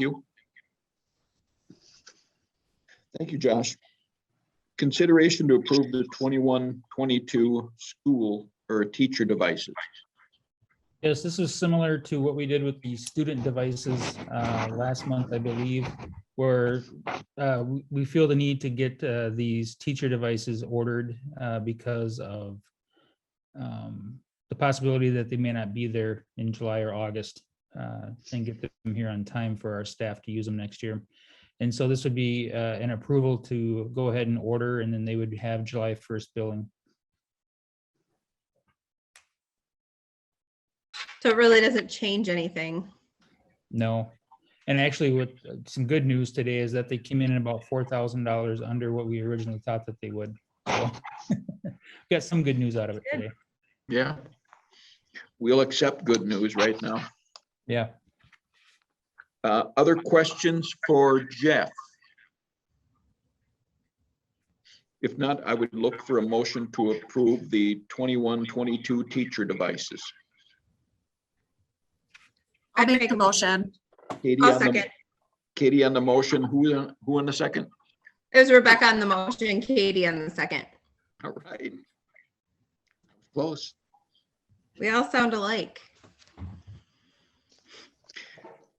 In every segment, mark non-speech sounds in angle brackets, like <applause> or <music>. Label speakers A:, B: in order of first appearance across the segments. A: you. Thank you, Josh. Consideration to approve the 21-22 school or teacher devices.
B: Yes, this is similar to what we did with the student devices uh, last month, I believe, where uh, we- we feel the need to get uh, these teacher devices ordered uh, because of um, the possibility that they may not be there in July or August uh, and get them here on time for our staff to use them next year. And so this would be uh, an approval to go ahead and order, and then they would have July 1st billing.
C: So it really doesn't change anything.
B: No. And actually, what, some good news today is that they came in at about four thousand dollars under what we originally thought that they would. So, <laughs> Got some good news out of it
C: Good.
B: today.
A: Yeah. We'll accept good news right now.
B: Yeah.
A: Uh, Other questions for Jeff? If not, I would look for a motion to approve the 21-22 teacher devices.
D: I'll make a motion.
A: Katie
C: I'll
A: on the-
C: second.
A: Katie on the motion, who, who on the second?
C: It was Rebecca on the motion, Katie on the second.
A: All right. Close.
C: We all sound alike.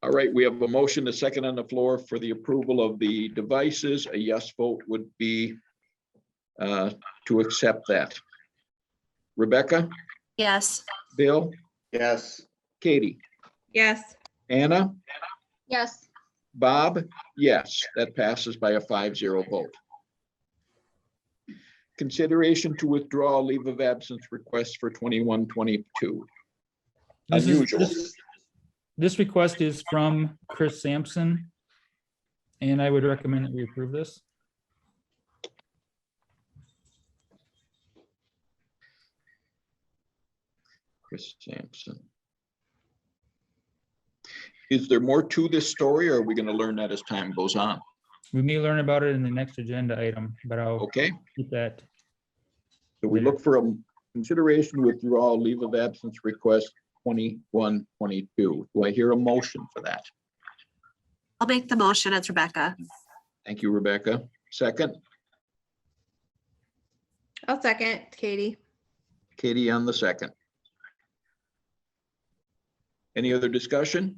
A: All right, we have a motion, a second on the floor for the approval of the devices. A yes vote would be uh, to accept that. Rebecca,
D: Yes.
A: Bill,
E: yes,
A: Katie,
C: Yes,
A: Anna,
D: Yes.
A: Bob, yes, that passes by a five zero vote. Consideration to withdraw leave of absence request for twenty-one, twenty-two.
B: This is-
A: Unusual.
B: this- This request is from Chris Sampson. And I would recommend that we approve this.
A: Chris Sampson. Is there more to this story or are we going to learn that as time goes on?
B: We may learn about it in the next agenda item, but I'll
A: Okay,
B: keep that.
A: so we look for a consideration withdrawal leave of absence request twenty-one, twenty-two. Do I hear a motion for that?
D: I'll make the motion. It's Rebecca.
A: Thank you, Rebecca. Second,
C: I'll second, Katie.
A: Katie on the second. Any other discussion?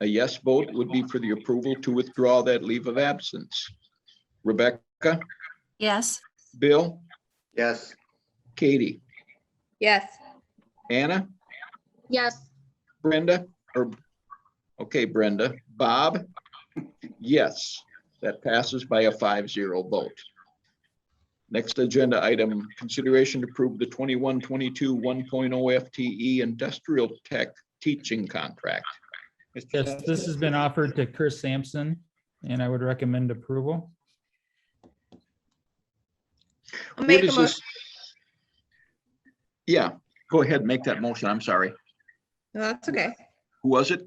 A: A yes vote would be for the approval to withdraw that leave of absence. Rebecca,
D: Yes.
A: Bill,
E: yes,
A: Katie,
C: Yes,
A: Anna,
D: Yes.
A: Brenda, or, okay, Brenda, Bob? Yes, that passes by a five zero vote. Next agenda item, consideration to approve the 21-22 1.0 FTE E industrial tech teaching contract. Mr.
B: Yes, this has been offered to Chris Sampson and I would recommend approval.
C: I'll
A: Where
C: make a
A: does
C: motion.
A: this? Yeah, go ahead, make that motion. I'm sorry.
C: No, That's okay.
A: Who was it?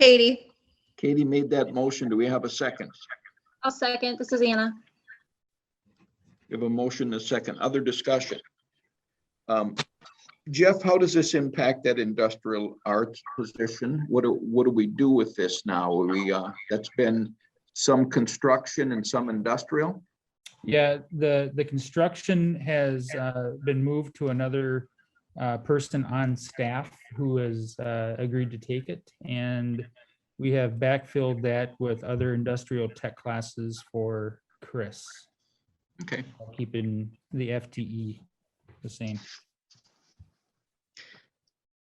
C: Katie,
A: Katie made that motion. Do we have a second?
F: I'll second. This is Anna.
A: We have a motion, and a second, other discussion. Um, Jeff, how does this impact that industrial arts position? What do, what do we do with this now? Are We, uh, that's been some construction and some industrial?
B: Yeah, the, the construction has uh, been moved to another uh, person on staff who has uh, agreed to take it. And we have backfilled that with other industrial tech classes for Chris,
A: Okay,
B: keeping the FTE the same.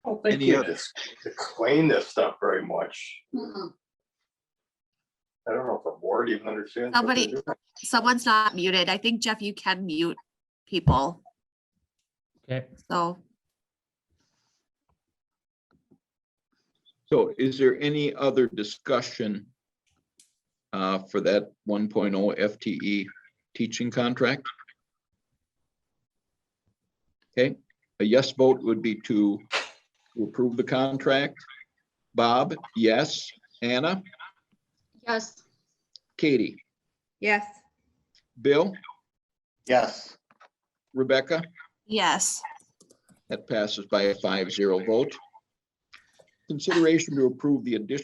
G: I don't think
A: Any
G: you
A: other-
G: ex- explain this stuff very much. I don't know if the board even understands. what
D: Somebody-
G: they're doing.
D: Someone's not muted. I think Jeff, you can mute people.
B: Okay,
D: So
A: so is there any other discussion uh, for that 1.0 FTE E teaching contract? Okay, a yes vote would be to approve the contract. Bob, yes. Anna,
F: Yes.
A: Katie,
C: yes,
A: Bill,
E: yes,
A: Rebecca,
D: yes.
A: that passes by a five zero vote. Consideration to approve the addition